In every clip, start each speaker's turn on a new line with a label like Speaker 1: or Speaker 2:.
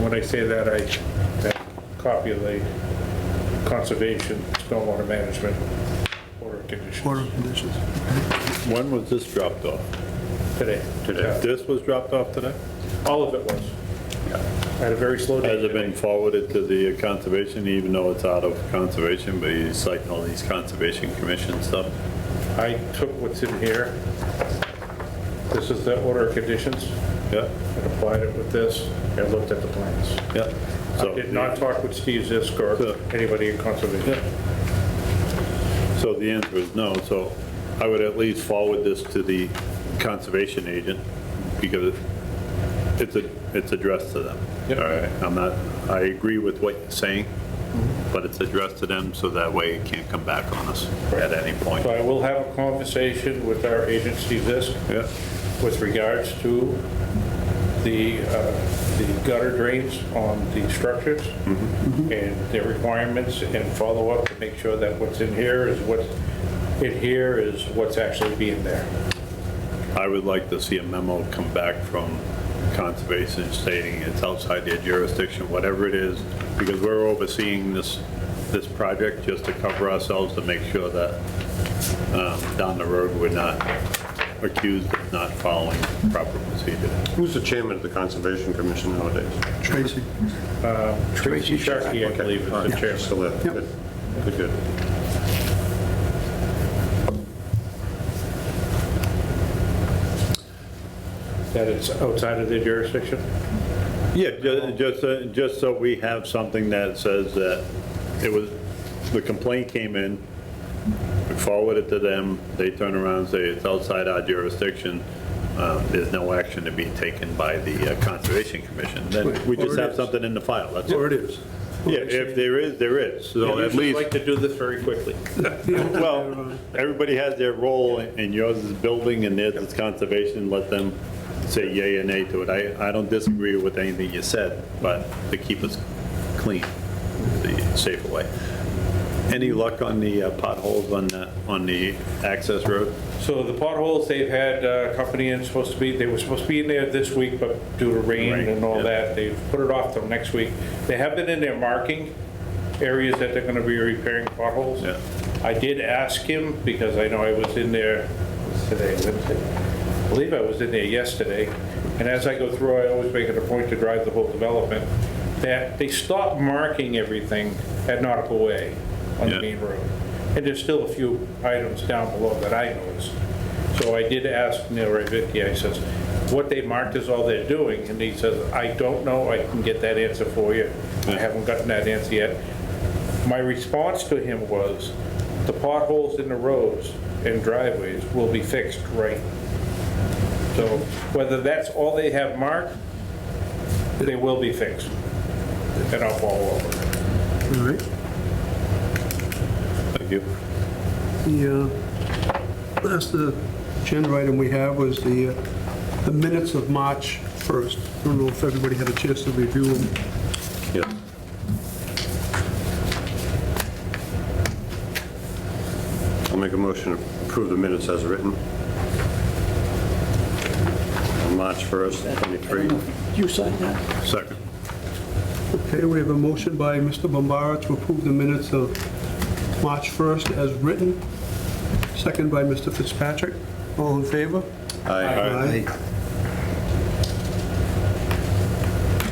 Speaker 1: when I say that, I, that copy of the conservation, stormwater management, order of
Speaker 2: Order
Speaker 1: conditions
Speaker 2: of conditions.
Speaker 3: When was this dropped off?
Speaker 1: today.
Speaker 3: Today? This was dropped off today?
Speaker 1: Yeah, All of it was. I Had a very slow day.
Speaker 3: Has it been forwarded to the conservation, even though it's out of conservation, but you cite all these conservation commission stuff?
Speaker 1: I took what's in here. This is the order of conditions,
Speaker 3: Yeah,
Speaker 1: and applied it with this, and looked at the plans.
Speaker 3: yeah.
Speaker 1: I
Speaker 3: So-
Speaker 1: did not talk with Steve Zisk or
Speaker 3: So-
Speaker 1: anybody in conservation.
Speaker 3: So the answer is no, so I would at least forward this to the conservation agent, because it's, a it's addressed to them. All
Speaker 1: Yep.
Speaker 3: right, I'm not, I agree with what you're saying, but it's addressed to them, so that way it can't come back on us at any point.
Speaker 1: So I will have a conversation with our agent, Steve Zisk,
Speaker 3: Yeah,
Speaker 1: with regards to the, uh, the gutter drains on the structures
Speaker 4: Mm-hmm.
Speaker 1: and their requirements and follow up to make sure that what's in here is what's, in here is what's actually being there.
Speaker 3: I would like to see a memo come back from conservation stating it's outside their jurisdiction, whatever it is, because we're overseeing this, this project just to cover ourselves to make sure that um, down the road, we're not accused of not following proper procedure.
Speaker 4: Who's the chairman of the Conservation Commission nowadays?
Speaker 2: Tracy.
Speaker 1: Tracy Sharkey, I believe, is
Speaker 4: All right,
Speaker 1: the chairman.
Speaker 4: Still there,
Speaker 2: Yep.
Speaker 4: good, good, good.
Speaker 1: That it's outside of their jurisdiction?
Speaker 3: Yeah, ju- just, uh, just so we have something that says that it was, the complaint came in, we forwarded to them, they turn around and say it's outside our jurisdiction, um, there's no action to be taken by the uh, Conservation Commission, then we just
Speaker 2: Or it
Speaker 3: have
Speaker 2: is.
Speaker 3: something in the file, that's
Speaker 2: Or
Speaker 3: it.
Speaker 2: it is.
Speaker 3: Yeah, if there is, there is, so
Speaker 1: I'd
Speaker 3: at least,
Speaker 1: like to do this very quickly.
Speaker 3: well, everybody has their role, and yours is building, and theirs is conservation, let them say yay and nay to it. I, I don't disagree with anything you said, but to keep us clean, the safer way. Any luck on the uh, potholes on the, on the access road?
Speaker 1: So the potholes, they've had uh, company in, supposed to be, they were supposed to be in there this week, but due to rain
Speaker 3: Rain,
Speaker 1: and all
Speaker 3: yeah.
Speaker 1: that, they've put it off till next week. They have been in there marking areas that they're gonna be repairing potholes.
Speaker 3: Yeah.
Speaker 1: I did ask him, because I know I was in there what's today, Wednesday. I believe I was in there yesterday, and as I go through, I always make it a point to drive the whole development, that they stopped marking everything at Nautical Way on the
Speaker 3: Yeah.
Speaker 1: main road. And there's still a few items down below that I noticed. So I did ask Neil Ravicki, I says, what they marked is all they're doing, and he says, I don't know, I can get that answer for you. I haven't gotten that answer yet. My response to him was, the potholes in the roads and driveways will be fixed right. So whether that's all they have marked, they will be fixed. And I'll follow up with it.
Speaker 2: All right.
Speaker 3: Thank you.
Speaker 2: The uh, last uh, agenda item we have was the, uh, the minutes of March 1st. I don't know if everybody had a chance to review them.
Speaker 3: Yeah.
Speaker 4: I'll make a motion to approve the minutes as written. On March 1st, 23.
Speaker 5: You signed that?
Speaker 3: Second.
Speaker 2: Okay, we have a motion by Mr. Bombara to approve the minutes of March 1st as written, second by Mr. Fitzpatrick. All in favor?
Speaker 4: Aye.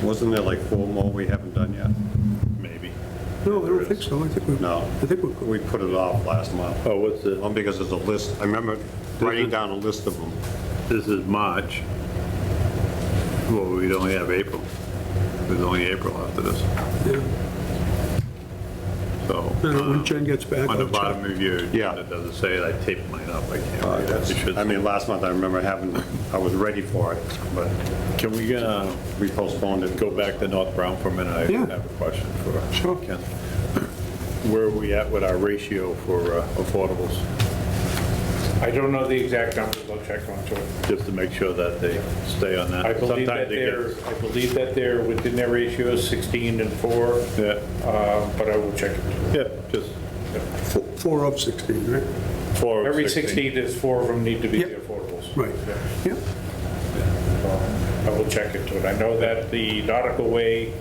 Speaker 4: Wasn't there like four more we haven't done yet?
Speaker 3: Maybe.
Speaker 2: No, I don't think so. I think we,
Speaker 4: No.
Speaker 2: I think we're
Speaker 4: We put it off last month.
Speaker 3: Oh, what's the,
Speaker 4: Well, because there's a list, I remember writing down a list of them.
Speaker 3: this is March. Well, we only have April. There's only April after this,
Speaker 2: good.
Speaker 3: so.
Speaker 2: Uh, When
Speaker 3: um,
Speaker 2: Jen gets back,
Speaker 3: On the
Speaker 2: I'll check.
Speaker 3: bottom of your,
Speaker 4: Yeah.
Speaker 3: it doesn't say it, I taped mine up, I can't.
Speaker 4: Uh,
Speaker 3: read it.
Speaker 4: that's-
Speaker 3: It should-
Speaker 4: I mean, last month, I remember having, I was ready for it, but
Speaker 3: Can we uh,
Speaker 4: we postponed it.
Speaker 3: go back to North Brown for a minute? I
Speaker 2: Yeah.
Speaker 3: have a question for.
Speaker 2: Sure.
Speaker 3: Ken. Where are we at with our ratio for uh, affordables?
Speaker 1: I don't know the exact numbers, I'll check onto it.
Speaker 3: Just to make sure that they stay on that.
Speaker 1: I believe that
Speaker 3: Sometimes they get-
Speaker 1: they're, I believe that they're within their ratios, 16 and 4, uh, but I will check it.
Speaker 3: Yeah, yeah, just
Speaker 2: Four- four of 16, right?
Speaker 3: four. of
Speaker 1: Every 16, there's four of them need to be the
Speaker 2: Yep.
Speaker 1: affordables.
Speaker 2: Right.
Speaker 1: Yeah.
Speaker 2: Yep.
Speaker 1: I will check into it. I know that the Nautical Way